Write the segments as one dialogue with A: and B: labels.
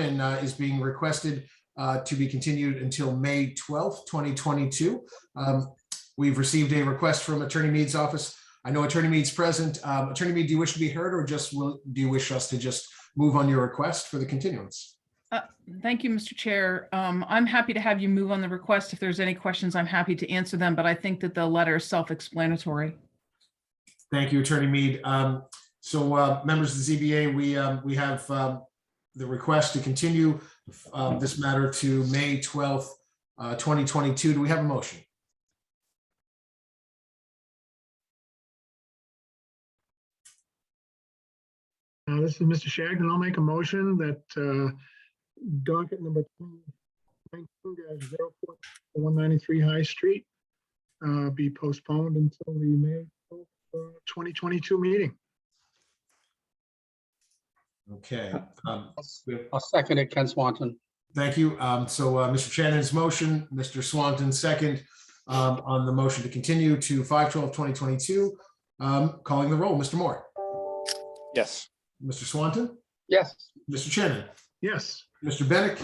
A: and uh, is being requested uh, to be continued until May 12th, 2022. Um, We've received a request from Attorney Mead's office. I know Attorney Mead's present. Um, Attorney Mead, do you wish to be heard or just will, do you wish us to just move on your request for the continuance?
B: Thank you, Mr. Chair. Um, I'm happy to have you move on the request. If there's any questions, I'm happy to answer them, but I think that the letter is self-explanatory.
A: Thank you, Attorney Mead. Um, So uh, members of the ZBA, we, um, we have um, the request to continue uh, this matter to May 12th, uh, 2022. Do we have a motion?
C: Uh, This is Mr. Shagnon. I'll make a motion that uh, docket number 19-04-193 High Street uh, be postponed until the May 12th, uh, 2022 meeting.
A: Okay. um,
D: I'll second it, Ken Swanton.
A: Thank you. Um, So uh, Mr. Shannon's motion, Mr. Swanton second um, on the motion to continue to 5/12/2022. Um, Calling the roll, Mr. Moore,
E: Yes.
A: Mr. Swanton,
D: Yes.
A: Mr. Shannon,
C: Yes,
A: Mr. Bennett,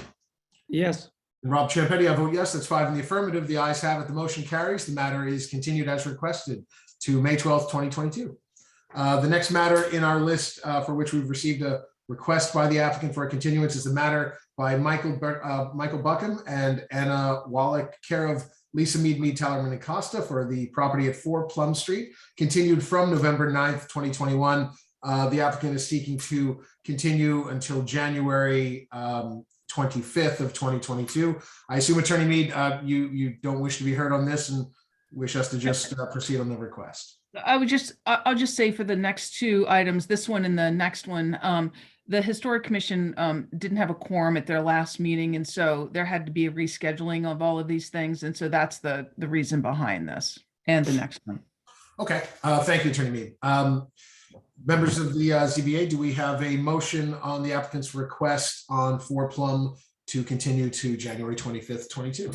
D: Yes.
A: and Rob Champetti. I vote yes. That's five in the affirmative. The ayes have it. The motion carries. The matter is continued as requested to May 12th, 2022. Uh, The next matter in our list uh, for which we've received a request by the applicant for a continuance is the matter by Michael, Bur- uh, Michael Buckham and Anna Wallach, care of Lisa Mead, Mead, Tellerman and Costa for the property at 4 Plum Street, continued from November 9th, 2021. Uh, The applicant is seeking to continue until January um, 25th of 2022. I assume Attorney Mead, uh, you, you don't wish to be heard on this and wish us to just uh, proceed on the request.
B: I would just, I- I'll just say for the next two items, this one and the next one, um, the Historic Commission um, didn't have a quorum at their last meeting, and so there had to be a rescheduling of all of these things, and so that's the, the reason behind this and the next one.
A: Okay, uh, thank you, Attorney Mead. Um, members of the uh, ZBA, do we have a motion on the applicant's request on four Plum to continue to January twenty-fifth, twenty-two?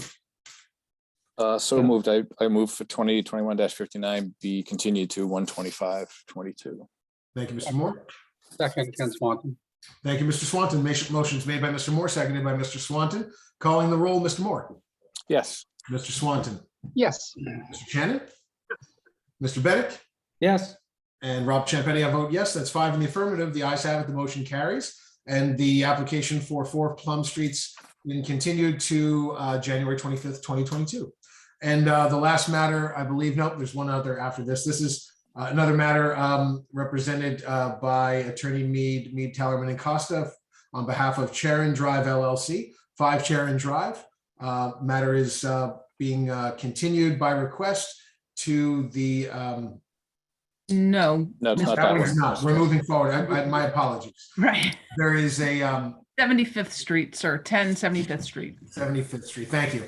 E: Uh, so moved. I, I move for twenty twenty-one fifty-nine be continued to one twenty-five twenty-two.
A: Thank you, Mr. Moore.
D: Second, Ken Swanton.
A: Thank you, Mr. Swanton. Mas- Motion's made by Mr. Moore, seconded by Mr. Swanton. Calling the roll, Mr. Moore,
E: Yes.
A: Mr. Swanton,
D: Yes.
A: Mr. Shannon, Mr. Bennett,
D: Yes.
A: and Rob Champetti. I vote yes. That's five in the affirmative. The ayes have it. The motion carries. And the application for four Plum Streets been continued to uh, January twenty-fifth, twenty twenty-two. And uh, the last matter, I believe, nope, there's one other after this. This is uh, another matter um, represented uh, by Attorney Mead, Mead, Tellerman and Costa on behalf of Charon Drive LLC, five Charon Drive. Uh, Matter is uh, being uh, continued by request to the um,
B: No,
E: No, it's
B: Yes,
E: not
B: that
E: that
B: was
E: one.
A: no, we're moving forward. I- I- My apologies.
B: right,
A: There is a um,
B: 75th Street, sir, 10 75th Street.
A: 75th Street. Thank you.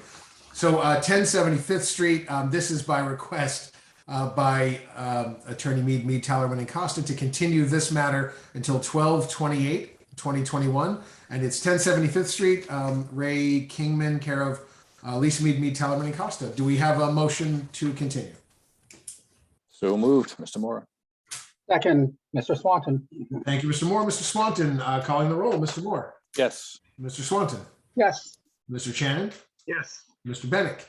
A: So uh, 10 75th Street, um, this is by request uh, by um, Attorney Mead, Mead, Tallerman, and Costa to continue this matter until 12 28, 2021. And it's 10 75th Street, um, Ray Kingman, care of uh, Lisa Mead, Mead, Tallerman, and Costa. Do we have a motion to continue?
E: So moved, Mr. Mora.
D: Second, Mr. Swanton.
A: Thank you, Mr. Moore. Mr. Swanton uh, calling the roll. Mr. Moore,
E: Yes.
A: Mr. Swanton,
D: Yes.
A: Mr. Shannon,
C: yes.
A: Mr. Bennett.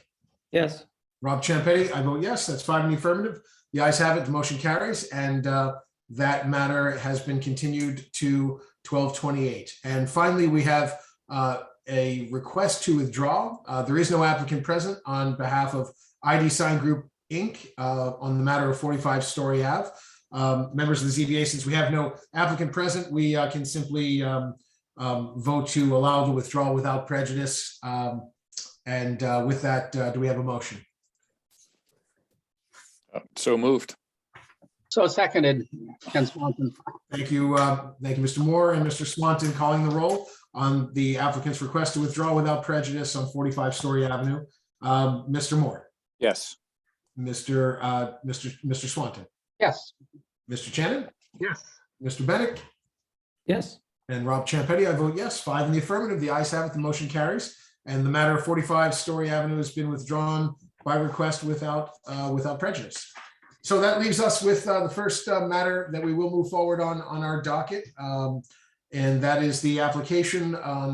D: Yes.
A: Rob Champetti, I vote yes. That's five in the affirmative. The ayes have it. The motion carries, and uh, that matter has been continued to twelve twenty-eight. And finally, we have uh, a request to withdraw. Uh, There is no applicant present on behalf of ID Sign Group, Inc. uh, on the matter of forty-five Story Ave. Um, Members of the ZBA, since we have no applicant present, we uh, can simply um, um, vote to allow the withdrawal without prejudice. Um, And uh, with that, uh, do we have a motion?
E: Uh, So moved.
D: So seconded, Ken Swanton.
A: Thank you, uh, thank you, Mr. Moore and Mr. Swanton calling the roll on the applicant's request to withdraw without prejudice on 45 Story Avenue. Um, Mr. Moore,
E: Yes.
A: Mr. uh, Mr. Mr. Swanton,
D: Yes.
A: Mr. Shannon,
C: Yes,
A: Mr. Bennett,
D: Yes.
A: and Rob Champetti. I vote yes, five in the affirmative. The ayes have it, the motion carries. And the matter of 45 Story Avenue has been withdrawn by request without, uh, without prejudice. So that leaves us with uh, the first uh, matter that we will move forward on, on our docket. um, And that is the application on